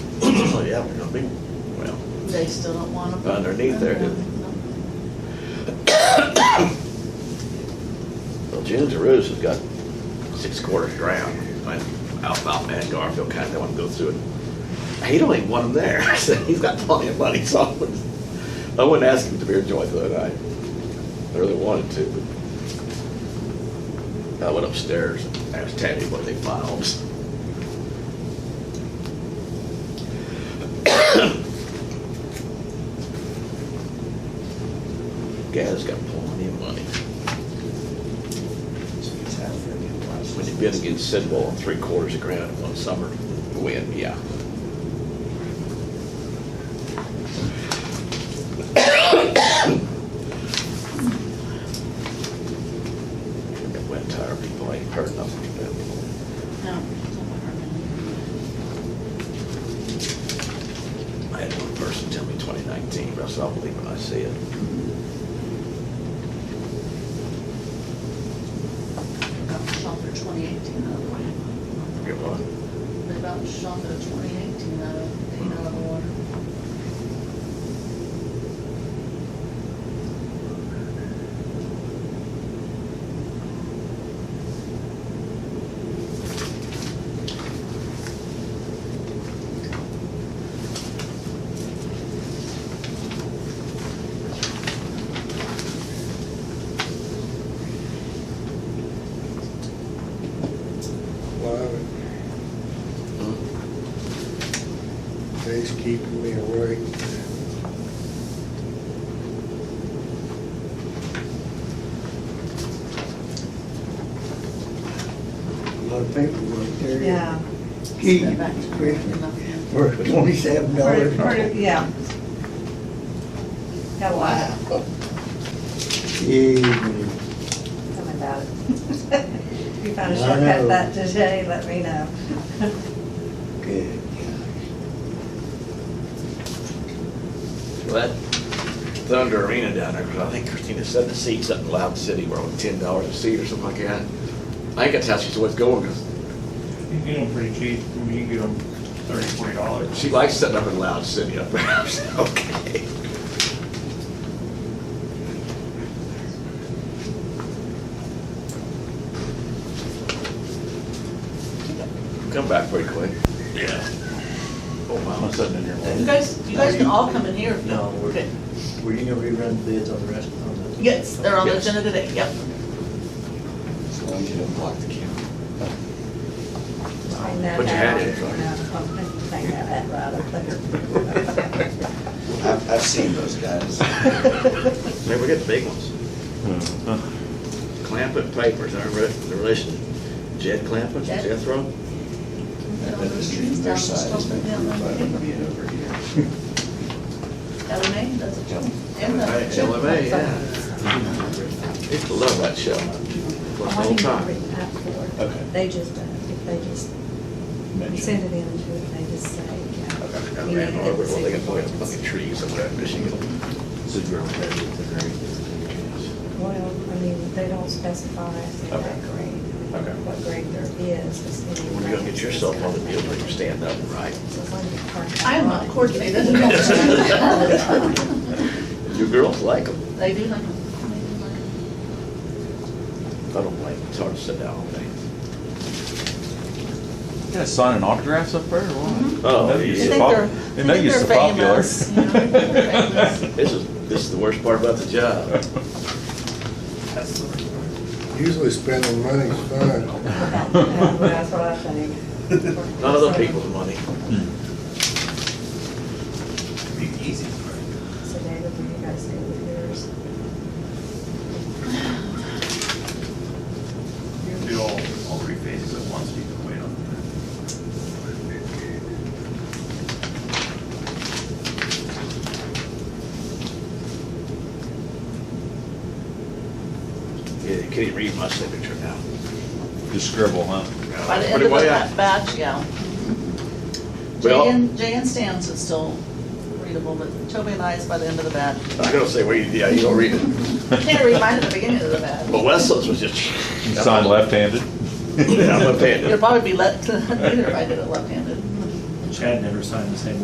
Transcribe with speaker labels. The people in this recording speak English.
Speaker 1: usually up in the big, well,
Speaker 2: They still don't want them.
Speaker 1: Underneath there, do they? well, June Tarus has got six quarters ground. My outbound man Garfield kind of wanted to go through it. He don't even want him there. I said, he's got plenty of money, so I wouldn't, I wouldn't ask him to be a joint the other night. I really wanted to, but I went upstairs and asked Tammy what they filed. Guy's got plenty of money. When you bid against Sidwell on three quarters of ground in one summer, win, yeah. That wind tire people ain't heard nothing from them.
Speaker 2: No.
Speaker 1: I had one person tell me twenty nineteen, but I said, I'll believe when I see it.
Speaker 2: About to shop for twenty eighteen out of one.
Speaker 1: Forget what?
Speaker 2: They about to shop for twenty eighteen out of, eight out of the water.
Speaker 3: Well, They's keeping me awake. A lot of paperwork there.
Speaker 4: Yeah.
Speaker 3: Gee,
Speaker 2: Step back.
Speaker 3: for twenty-seven
Speaker 4: For-
Speaker 3: dollars.
Speaker 4: for- Yeah. Got a lot coming about it. If you found
Speaker 3: I
Speaker 4: a
Speaker 3: know.
Speaker 4: shortcut that today, let me know.
Speaker 3: good.
Speaker 1: Well, that Thunder Arena down there, 'cause I think Christina said the seats up in Loud City were on ten dollars a seat or something like that. I think that's how she's always going, 'cause
Speaker 5: You can get them pretty cheap, I mean, you can get them thirty, forty dollars.
Speaker 1: she likes sitting up in Loud City up there. I said, Okay. Come back pretty quick.
Speaker 5: Yeah.
Speaker 1: Oh, wow, I'm sitting in
Speaker 2: You
Speaker 1: here.
Speaker 2: guys, you guys can all come in here. if you-
Speaker 6: No, we're,
Speaker 2: Okay.
Speaker 6: were you gonna rerun the bids on the rest of them?
Speaker 2: Yes, they're on the
Speaker 1: Yes.
Speaker 2: agenda today, yep.
Speaker 1: As long as you don't block the camera.
Speaker 4: I know
Speaker 1: But you had
Speaker 4: that.
Speaker 1: it, right?
Speaker 4: No, I know that right up there.
Speaker 6: I've, I've seen those guys.
Speaker 1: Maybe we get the big ones. Clampett Papers, our re- the relation, Jed Clampett,
Speaker 2: Jed?
Speaker 1: Jethro?
Speaker 6: That industry on their side has been proved by being over here.
Speaker 2: LMA, that's a joke. And the-
Speaker 1: Right, LMA, yeah. Used to love that show. For the whole time.
Speaker 6: Okay.
Speaker 4: They just, uh, if they just send it in to it, they just say, yeah.
Speaker 1: I
Speaker 4: you
Speaker 1: ran
Speaker 4: need to
Speaker 1: over, well, they got
Speaker 4: get the
Speaker 1: put up
Speaker 4: seat.
Speaker 1: fucking trees over there in Michigan.
Speaker 6: So you're on that, it's
Speaker 4: Well, I mean, they don't specify if they're
Speaker 6: Okay.
Speaker 4: that grade,
Speaker 6: Okay.
Speaker 4: what grade there is. it's
Speaker 1: When you gonna get yourself on the deal, you stand up and right.
Speaker 2: I am not coordinated at all.
Speaker 1: You girls like them.
Speaker 2: They do like them.
Speaker 1: I don't like, 'em. it's hard to sit down all day.
Speaker 7: Yeah, signing autographs up there, or what?
Speaker 1: Oh,
Speaker 7: They know
Speaker 1: yeah.
Speaker 7: you're
Speaker 1: They
Speaker 2: think
Speaker 7: pop-
Speaker 2: they're-
Speaker 7: They know
Speaker 2: they
Speaker 7: you're
Speaker 2: think
Speaker 7: so
Speaker 2: they're
Speaker 7: popular.
Speaker 2: famous, you know, they're famous.
Speaker 1: This is, this is the worst part about the job. That's the worst part.
Speaker 3: Usually spending money's fun.
Speaker 4: That's what I think.
Speaker 1: Not other people's money.
Speaker 6: easy.
Speaker 4: So David, when you guys do with yours,
Speaker 5: You can do all, all three phases at once, you can wait on that.
Speaker 1: Yeah, you can't even read my signature now.
Speaker 7: Hmm. Just scribble, huh?
Speaker 2: By the end of that batch, yeah.
Speaker 1: Well-
Speaker 2: Jay and, Jay and Stan's is still readable, but Toby and I is by the end of the batch.
Speaker 1: I don't say, well, you- yeah, you don't read it.
Speaker 2: Can't read mine at the beginning of the batch.
Speaker 1: But Wesleyan's was just.
Speaker 7: You sign left-handed.
Speaker 1: Yeah, I'm a
Speaker 2: It'll
Speaker 1: panda.
Speaker 2: probably be let, either if I did it left-handed.
Speaker 5: Chad never signed the same